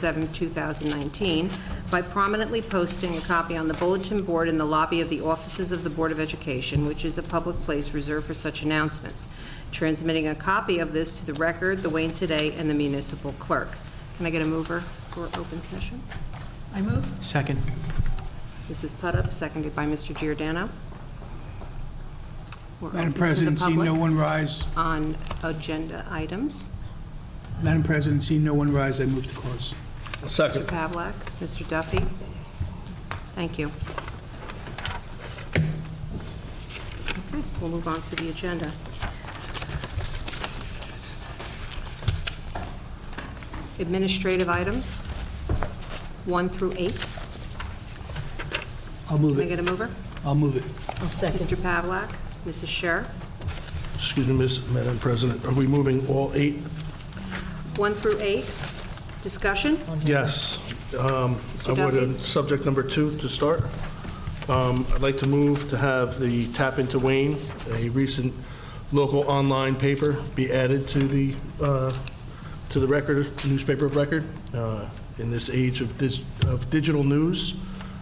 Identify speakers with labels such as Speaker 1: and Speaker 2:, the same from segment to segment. Speaker 1: 7, 2019, by prominently posting a copy on the bulletin board in the lobby of the offices of the Board of Education, which is a public place reserved for such announcements, transmitting a copy of this to the record, the Wayne Today, and the municipal clerk. Can I get a mover for open session?
Speaker 2: I move.
Speaker 3: Second.
Speaker 1: Mrs. Putup, seconded by Mr. Giordano. We're open
Speaker 4: Madam
Speaker 1: to the
Speaker 4: President, seeing no
Speaker 1: public
Speaker 4: one rise,
Speaker 1: On agenda items.
Speaker 4: Madam President, seeing no one rise, I move to close.
Speaker 1: Mr. Pavlak, Mr. Duffy. Thank you. Okay, we'll move on to the agenda. Administrative items, 1 through 8.
Speaker 4: I'll move
Speaker 1: Can I get
Speaker 4: it.
Speaker 1: a mover?
Speaker 4: I'll move it.
Speaker 2: I'll second.
Speaker 1: Mr. Pavlak, Mrs. Scher.
Speaker 5: Excuse me, Miss- Madam President, are we moving all eight?
Speaker 1: 1 through 8, discussion?
Speaker 5: Yes. Um, I would, uh, subject number two to start. Um, I'd like to move to have the Tap into Wayne, a recent local online paper, be added to the, uh, to the record, newspaper of record. Uh, In this age of dis of digital news,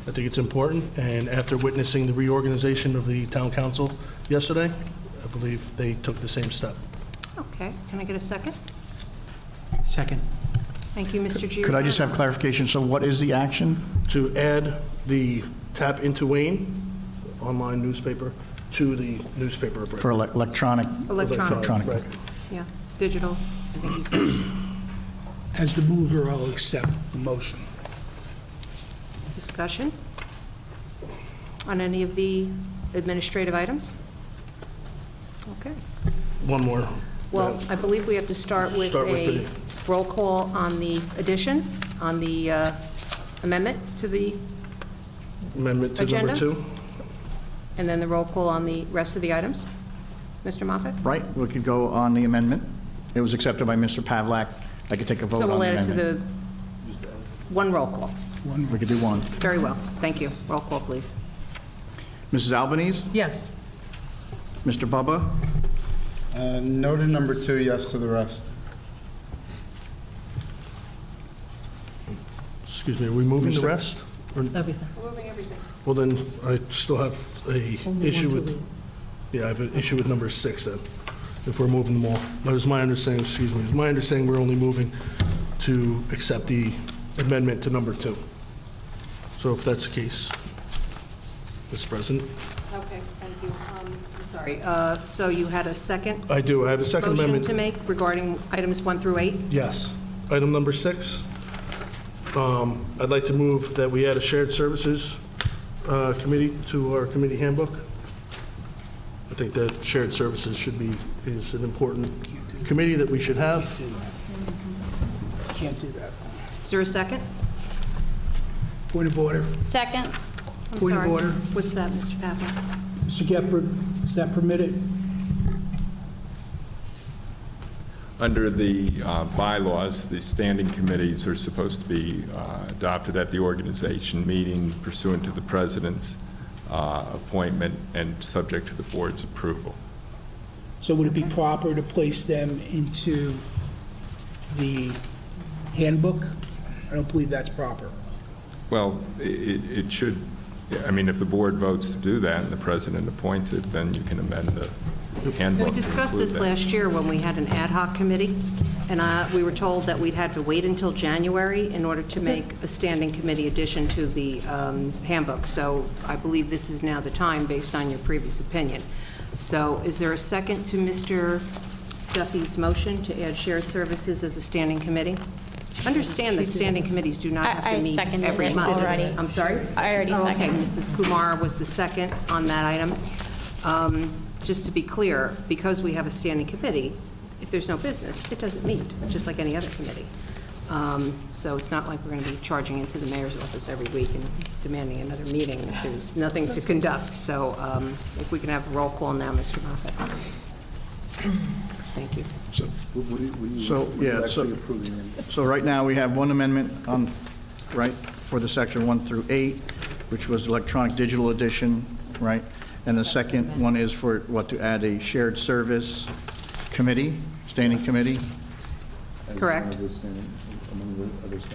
Speaker 5: I think it's important, and after witnessing the reorganization of the town council yesterday, I believe they took the same step.
Speaker 1: Okay, can I get a second?
Speaker 3: Second.
Speaker 1: Thank you, Mr. Giordano.
Speaker 6: Could I just have clarification? So what is the action?
Speaker 5: to add the Tap Into Wayne online newspaper to the newspaper of
Speaker 6: For
Speaker 5: record.
Speaker 6: ele- electronic?
Speaker 1: Electronic.
Speaker 6: Electronic.
Speaker 5: Right.
Speaker 1: Yeah, digital, I think you said.
Speaker 4: As the mover, I'll accept the motion.
Speaker 1: Discussion on any of the administrative items? Okay.
Speaker 5: One more. uh,
Speaker 1: Well, I believe we have to start with
Speaker 5: Start with
Speaker 1: a roll call on the addition, on the uh, amendment to the,
Speaker 5: Amendment to number
Speaker 1: Agenda?
Speaker 5: two.
Speaker 1: and then the roll call on the rest of the items. Mr. Moffett?
Speaker 6: Right, we could go on the amendment. It was accepted by Mr. Pavlak. I could take a vote
Speaker 1: So
Speaker 6: on the
Speaker 1: we'll add it
Speaker 6: amendment.
Speaker 1: to the, one roll call.
Speaker 6: We could do one.
Speaker 1: Very well, thank you. Roll call, please.
Speaker 6: Mrs. Albanese?
Speaker 2: Yes.
Speaker 6: Mr. Bubba?
Speaker 7: Uh, No to number two, yes to the rest.
Speaker 5: Excuse me, are we moving the rest? Or-
Speaker 2: Everything.
Speaker 5: Well, then, I still have a issue with, yeah, I have an issue with number six then, if we're moving them all. But it's my understanding, excuse me, it's my understanding we're only moving to accept the amendment to number two. So if that's the case, Mr. President.
Speaker 1: Okay, thank you. Um, I'm sorry. uh, So you had a second
Speaker 5: I do, I have a second
Speaker 1: motion
Speaker 5: amendment.
Speaker 1: to make regarding items one through eight?
Speaker 5: Yes. Item number six, um, I'd like to move that we add a shared services uh, committee to our committee handbook. I think that shared services should be, is an important committee that we should have.
Speaker 4: Can't do that.
Speaker 1: Is there a second?
Speaker 4: Point of order.
Speaker 8: Second.
Speaker 1: I'm
Speaker 4: Point of
Speaker 1: sorry.
Speaker 4: order.
Speaker 1: What's that, Mr. Pavlik?
Speaker 4: Mr. Gephardt, is that permitted?
Speaker 9: Under the uh, bylaws, the standing committees are supposed to be uh, adopted at the organization meeting pursuant to the president's uh, appointment and subject to the board's approval.
Speaker 4: So would it be proper to place them into the handbook? I don't believe that's proper.
Speaker 9: Well, i- i- it should, I mean, if the board votes to do that and the president appoints it, then you can amend the handbook.
Speaker 1: We
Speaker 9: to
Speaker 1: discussed
Speaker 9: include
Speaker 1: this
Speaker 9: that.
Speaker 1: last year when we had an ad hoc committee, and uh, we were told that we'd had to wait until January in order to make a standing committee addition to the um, handbook. So I believe this is now the time, based on your previous opinion. So is there a second to Mr. Duffy's motion to add shared services as a standing committee? Understand that standing committees do not
Speaker 8: I-
Speaker 1: have
Speaker 8: I
Speaker 1: to meet
Speaker 8: seconded
Speaker 1: every
Speaker 8: it
Speaker 1: month.
Speaker 8: already.
Speaker 1: I'm sorry?
Speaker 8: I already
Speaker 1: Oh, okay.
Speaker 8: seconded.
Speaker 1: Mrs. Kumar was the second on that item. Um, Just to be clear, because we have a standing committee, if there's no business, it doesn't meet, just like any other committee. Um, So it's not like we're going to be charging into the mayor's office every week and demanding another meeting if there's nothing to conduct. So um, if we can have a roll call now, Mr. Moffett. Thank you.
Speaker 6: So, yeah, so, so right now, we have one amendment on, right, for the section one through eight, which was electronic digital edition, right? And the second one is for, what, to add a shared service committee, standing committee?
Speaker 1: Correct.
Speaker 7: Among the other standing-